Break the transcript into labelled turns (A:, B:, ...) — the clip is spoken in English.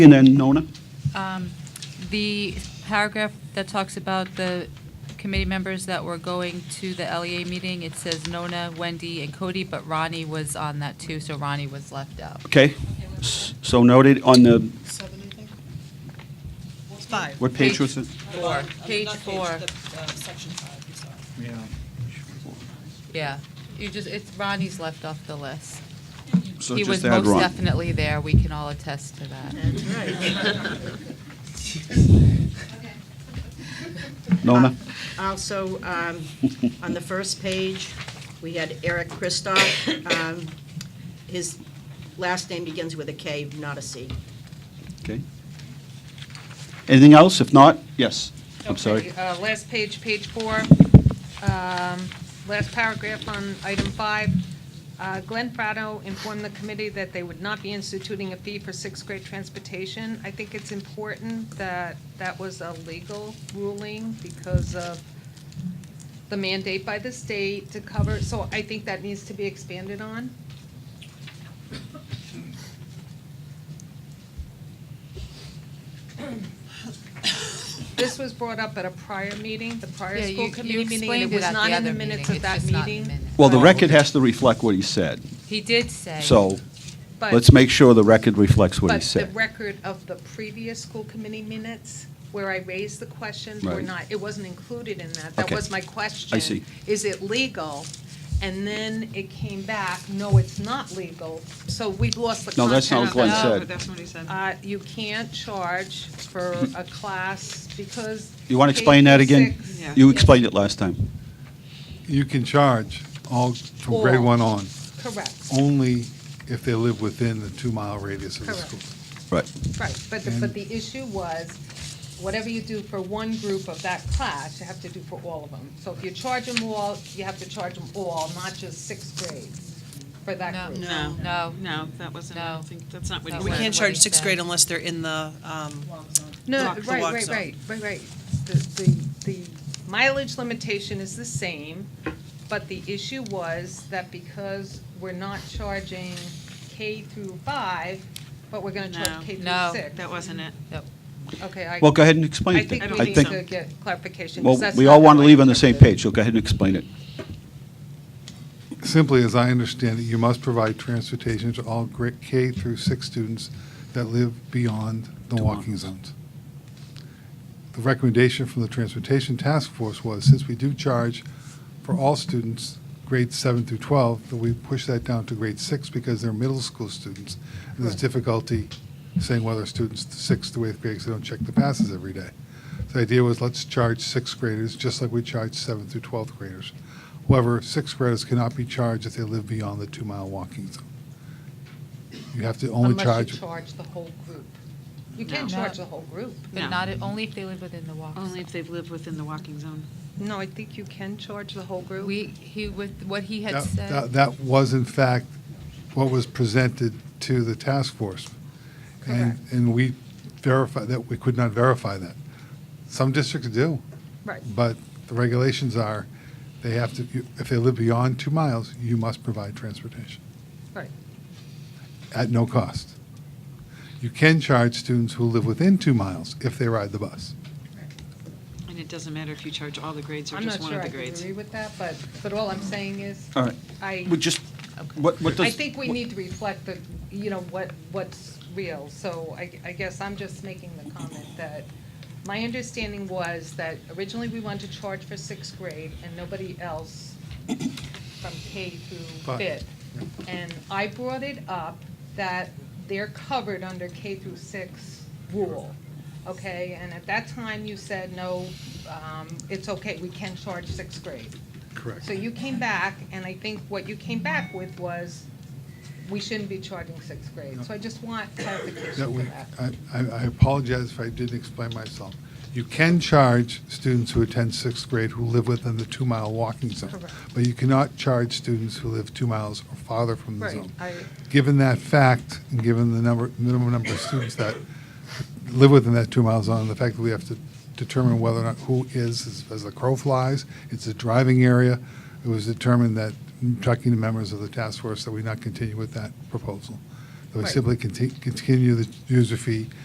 A: And then Nona?
B: Um, The paragraph that talks about the committee members that were going to the LEA meeting, it says Nona, Wendy, and Cody, but Ronnie was on that too, so Ronnie was left out.
A: Okay, S- so noted on the,
C: Seven, I think? It's five.
A: what page was it?
B: Four, page
C: Not
B: four,
C: the, uh, Section five, I'm sorry.
D: Yeah.
B: yeah. You just, it's, Ronnie's left off the list.
A: So
B: He was
A: just add
B: most
A: Ron.
B: definitely there, we can all attest to that.
A: Nona?
E: Also, um, on the first page, we had Eric Kristoff. Um, His last name begins with a K, not a C.
A: Okay. Anything else? If not, yes, I'm
F: Okay,
A: sorry.
F: uh, Last page, page four, um, last paragraph on item five. Uh, Glenn Frado informed the committee that they would not be instituting a fee for sixth grade transportation. I think it's important that that was a legal ruling because of the mandate by the state to cover, so I think that needs to be expanded on. This was brought up at a prior meeting, the prior
B: Yeah, you-
F: school
B: you
F: committee meeting, and
B: explained
F: it
B: it
F: was
B: at the
F: not in
B: other
F: the minutes
B: meeting,
F: of
B: it's
F: that
B: just not in the
F: meeting. Um,
B: minutes.
A: Well, the record has to reflect what he said,
B: He did say.
A: so
F: But-
A: let's make sure the record reflects what he
F: But
A: said.
F: the record of the previous school committee minutes, where I raised the question or
A: Right.
F: not, it wasn't included in that. That
A: Okay.
F: was my question.
A: see.
F: Is it legal? And then it came back, no, it's not legal, so we've lost the
A: No,
F: content.
A: that's not what
F: of
A: Glenn
F: that.
A: said.
C: That's what he said.
F: Uh, You can't charge for a class because.
A: You want to
F: K
A: explain that
F: through
A: again?
F: six-
C: Yeah.
A: You explained it last time.
D: You can charge all from grade
F: All.
D: one on,
F: Correct,
D: only if they live within the two-mile radius of the
F: Correct.
D: school.
A: Right.
F: right. But, the- but the issue was, whatever you do for one group of that class, you have to do for all of them. So if you charge them all, you have to charge them all, not just sixth grade for that
B: No,
F: group.
C: No.
B: no,
G: No, that wasn't, I
B: No.
G: don't think, that's not what
B: That
G: he
C: We
B: wasn't
G: said.
C: can't
B: what he
C: charge sixth
B: said.
C: grade unless they're in the, um,
F: No,
G: Walk the
F: right, right,
G: walk
F: right,
G: zone.
F: right, right. The, the, the mileage limitation is the same, but the issue was that because we're not charging K through five, but we're gonna
G: No.
F: charge K
B: No.
F: through six.
G: that wasn't it.
F: Okay, I,
A: Well, go ahead and explain
F: I
A: it
F: think
A: then.
F: we
A: I
F: need
A: think,
F: to get clarification.
A: well,
F: 'cause that's
A: we
F: not
A: all
F: how
A: want
F: I
A: to leave on the same
F: interpreted
A: page, so go ahead and explain it.
D: Simply, as I understand it, you must provide transportation to all grade K through six students that live beyond the walking zones. The recommendation from the Transportation Task Force was, since we do charge for all students, grades seven through 12, that we push that down to grade six because they're middle school students. And There's difficulty saying whether students to sixth to eighth grade, 'cause they don't check the passes every day. So The idea was let's charge sixth graders, just like we charge seventh through 12th graders. However, sixth graders cannot be charged if they live beyond the two-mile walking zone. You have to only
F: Unless you
D: charge,
F: charge the whole group. You
G: No.
F: can't
B: No.
F: charge the whole group.
B: But
G: No.
B: not, only if they live within the walk
G: Only if they've lived within the walking zone.
F: No, I think you can charge the whole group.
B: We, he, with what he had
D: that-
B: said.
D: that that was in fact what was presented to the task force. And, and we verified that, we could not verify that. Some districts do.
F: Right.
D: But the regulations are, they have to, you- if they live beyond two miles, you must provide transportation.
F: Right.
D: At no cost. You can charge students who live within two miles if they ride the bus.
G: And it doesn't matter if you charge all the grades or
F: I'm
G: just
F: not
G: one of
F: sure I
G: the
F: can
G: grades.
F: agree with that, but, but all I'm saying is,
A: All right,
F: I.
A: we just, what, what does?
F: I think we need to reflect the, you know, what, what's real. So I, I guess I'm just making the comment that my understanding was that originally we wanted to charge for sixth grade and nobody else from K through
D: Five.
F: fifth. And I brought it up that they're covered under K through six rule, okay? And at that time, you said, no, um, it's okay, we can charge sixth grade.
D: Correct.
F: So you came back, and I think what you came back with was, we shouldn't be charging sixth grade. So I just want
D: That
F: clarification
D: we,
F: for that.
D: I, I I apologize if I didn't explain myself. You can charge students who attend sixth grade who live within the two-mile walking zone.
F: Correct.
D: But you cannot charge students who live two miles or farther from the
F: Right,
D: zone.
F: I,
D: Given that fact, and given the number, minimum number of students that live within that two-mile zone, the fact that we have to determine whether or not who is, as- as the crow flies, it's a driving area, it was determined that, talking to members of the task force, that we not continue with that proposal. That we
F: Right.
D: simply conti- continue the user fee